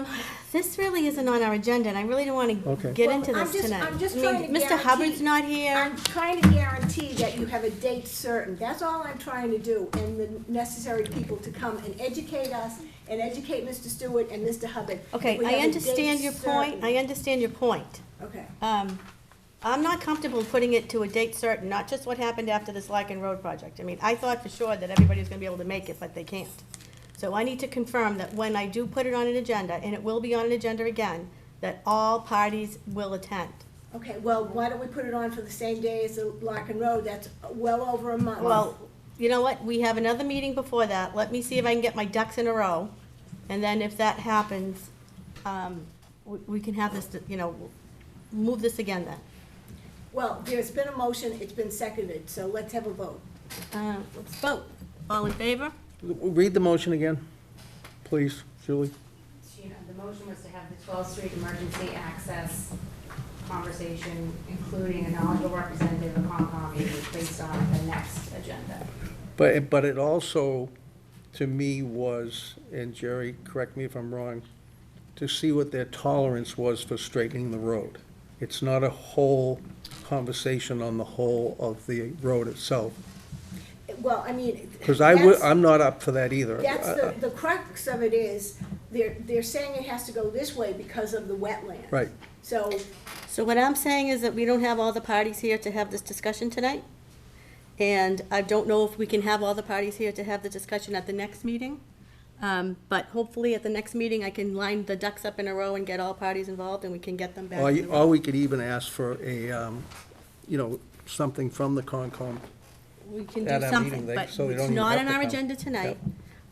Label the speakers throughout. Speaker 1: Um, This really isn't on our agenda, and I really don't want to
Speaker 2: Okay.
Speaker 1: get into
Speaker 3: Well, I'm
Speaker 1: this
Speaker 3: just-
Speaker 1: tonight.
Speaker 3: I'm just
Speaker 1: I mean,
Speaker 3: trying to
Speaker 1: Mr. Hubbard's
Speaker 3: guarantee-
Speaker 1: not here.
Speaker 3: I'm trying to guarantee that you have a date certain. That's all I'm trying to do, and the necessary people to come and educate us, and educate Mr. Stewart and Mr. Hubbard. that
Speaker 1: Okay,
Speaker 3: we
Speaker 1: I
Speaker 3: have a date
Speaker 1: understand your point, I
Speaker 3: certain.
Speaker 1: understand your point.
Speaker 3: Okay,
Speaker 1: Um, I'm not comfortable putting it to a date certain, not just what happened after the Slacken Road project. I mean, I thought for sure that everybody was gonna be able to make it, but they can't. So I need to confirm that when I do put it on an agenda, and it will be on an agenda again, that all parties will attend.
Speaker 3: okay, well, why don't we put it on for the same day as the Larkin Road? That's well over a month.
Speaker 1: Well, you know what, we have another meeting before that, let me see if I can get my ducks in a row, and then if that happens, um, we, we can have this, you know, move this again then.
Speaker 3: Well, there's been a motion, it's been seconded, so let's have a vote.
Speaker 1: Uh, let's vote, all in favor?
Speaker 2: Read the motion again, please, Julie.
Speaker 4: She, the motion was to have the 12th Street Emergency Access conversation, including a knowledgeable representative of Concom, being placed on the next agenda.
Speaker 2: But, it- but it also, to me, was, and Jerry, correct me if I'm wrong, to see what their tolerance was for straightening the road. It's not a whole conversation on the whole of the road itself,
Speaker 3: Well, I mean.
Speaker 2: because I would,
Speaker 3: that's-
Speaker 2: I'm not up for that either. Uh,
Speaker 3: That's
Speaker 2: I-
Speaker 3: the,
Speaker 2: I-
Speaker 3: the crux of it is, they're, they're saying it has to go this way because of the wetland.
Speaker 2: Right.
Speaker 3: So,
Speaker 1: So what I'm saying is that we don't have all the parties here to have this discussion tonight, and I don't know if we can have all the parties here to have the discussion at the next meeting. Um, but hopefully at the next meeting, I can line the ducks up in a row and get all parties involved, and we can get them back.
Speaker 2: uh, Or,
Speaker 1: to
Speaker 2: you-
Speaker 1: the-
Speaker 2: or we could even ask for a, um, you know, something from the Concom.
Speaker 1: we can
Speaker 2: At
Speaker 1: do
Speaker 2: our
Speaker 1: something,
Speaker 2: meeting, they-
Speaker 1: but
Speaker 2: so they don't
Speaker 1: it's
Speaker 2: even
Speaker 1: not
Speaker 2: have
Speaker 1: on
Speaker 2: to
Speaker 1: our
Speaker 2: come.
Speaker 1: agenda tonight.
Speaker 2: Yep.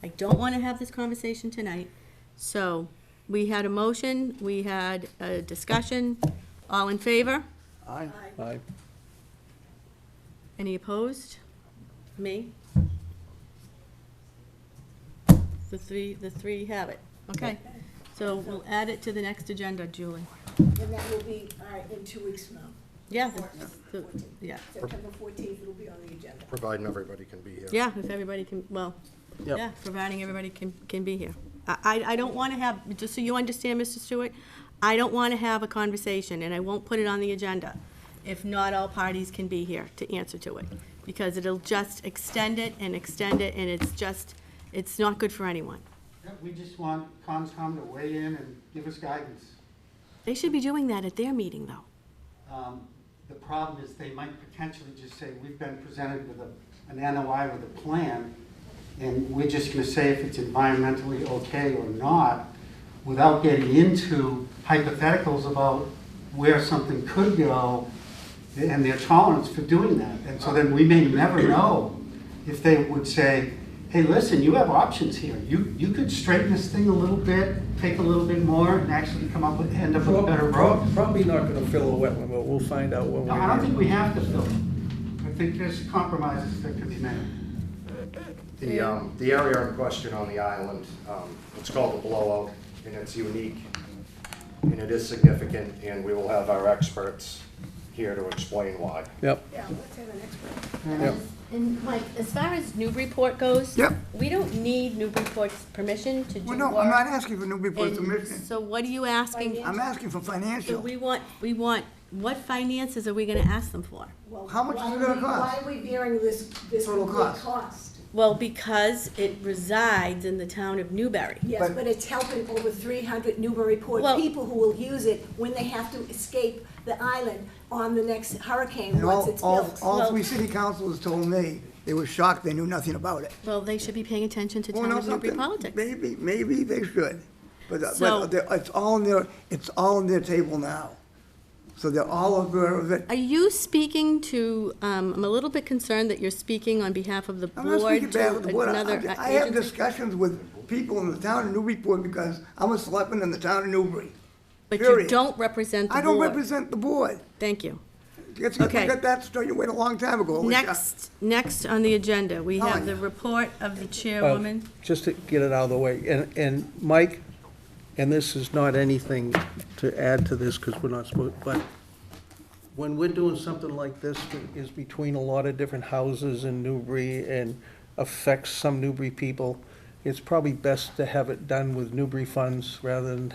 Speaker 1: I don't want to have this conversation tonight. So we had a motion, we had a discussion. All in favor?
Speaker 2: Aye. Aye.
Speaker 1: Any opposed? Me? The three, the three have it. Okay. So we'll add it to the next agenda, Julie.
Speaker 3: and that will be, all right, in two weeks from now.
Speaker 1: Yeah, the- the- yeah,
Speaker 3: September fourteenth, it'll be on the agenda.
Speaker 5: Providing everybody can be here.
Speaker 1: yeah, if everybody can, well,
Speaker 2: Yep.
Speaker 1: yeah, providing everybody can, can be here. I, I- I don't want to have, just so you understand, Mr. Stewart, I don't want to have a conversation, and I won't put it on the agenda if not all parties can be here to answer to it, because it'll just extend it and extend it, and it's just, it's not good for anyone.
Speaker 6: Yeah, We just want Conscom to weigh in and give us guidance.
Speaker 1: They should be doing that at their meeting, though.
Speaker 6: Um, The problem is they might potentially just say, we've been presented with a, an NOI with a plan, and we're just gonna say if it's environmentally okay or not, without getting into hypotheticals about where something could go and their tolerance for doing that. And so then we may never know if they would say, hey, listen, you have options here. You, you could straighten this thing a little bit, take a little bit more, and actually come up with, end up with a better road.
Speaker 2: Probably not gonna fill the wetland, but we'll find out when we.
Speaker 6: No, I don't think we have to fill it. I think there's compromises that can be made.
Speaker 5: The, um, the area in question on the island, um, it's called the blowout, and it's unique, and it is significant, and we will have our experts here to explain why.
Speaker 2: Yep,
Speaker 3: Yeah, let's have an expert.
Speaker 2: yep.
Speaker 1: And like, as far as Newburyport goes.
Speaker 7: Yep.
Speaker 1: We don't need Newburyport's permission to do
Speaker 7: Well,
Speaker 1: work.
Speaker 7: no, I'm not asking for Newburyport's
Speaker 1: And
Speaker 7: permission.
Speaker 1: So what are you asking?
Speaker 7: I'm asking for
Speaker 1: So
Speaker 7: financial.
Speaker 1: we want, we want, what finances are we gonna ask them for?
Speaker 3: Well,
Speaker 7: How much is
Speaker 3: why
Speaker 7: it
Speaker 3: are
Speaker 7: gonna
Speaker 3: we- Why
Speaker 7: cost?
Speaker 3: are we bearing this, this
Speaker 7: Total
Speaker 3: complete
Speaker 7: cost.
Speaker 3: cost?
Speaker 1: Well, because it resides in the town of Newbury.
Speaker 3: Yes,
Speaker 7: But-
Speaker 3: but it's helping over three hundred Newburyport
Speaker 1: Well-
Speaker 3: people who will use it when they have to escape the island on the next hurricane,
Speaker 7: And
Speaker 3: once
Speaker 7: all,
Speaker 3: it's
Speaker 7: all,
Speaker 3: built.
Speaker 7: all
Speaker 1: Well-
Speaker 7: three city councils told me, they were shocked, they knew nothing about it.
Speaker 1: Well, they should be paying attention to
Speaker 7: Well,
Speaker 1: town
Speaker 7: know
Speaker 1: of Newbury
Speaker 7: something?
Speaker 1: politics.
Speaker 7: Maybe, maybe they should. But,
Speaker 1: So-
Speaker 7: but they're- it's all on their, it's all on their table now. So they're all aware of it.
Speaker 1: Are you speaking to, um, I'm a little bit concerned that you're speaking on behalf of the
Speaker 7: I'm not
Speaker 1: board
Speaker 7: speaking
Speaker 1: to
Speaker 7: bad with the board. I-
Speaker 1: another
Speaker 7: I-
Speaker 1: uh,
Speaker 7: I have
Speaker 1: agency.
Speaker 7: discussions with people in the town of Newburyport because I'm a selectman in the town of Newbury.
Speaker 1: But you
Speaker 7: period.
Speaker 1: don't represent the
Speaker 7: I don't
Speaker 1: board.
Speaker 7: represent the board.
Speaker 1: Thank you.
Speaker 7: It's, I
Speaker 1: Okay.
Speaker 7: got that straight away a long time ago. which I-
Speaker 1: Next, next on the agenda, we have
Speaker 7: Fine.
Speaker 1: the report of the
Speaker 2: Well,
Speaker 1: chairwoman.
Speaker 2: Just to get it out of the way, and, and Mike, and this is not anything to add to this, because we're not supposed, but when we're doing something like this, it is between a lot of different houses in Newbury and affects some Newbury people, it's probably best to have it done with Newbury funds rather than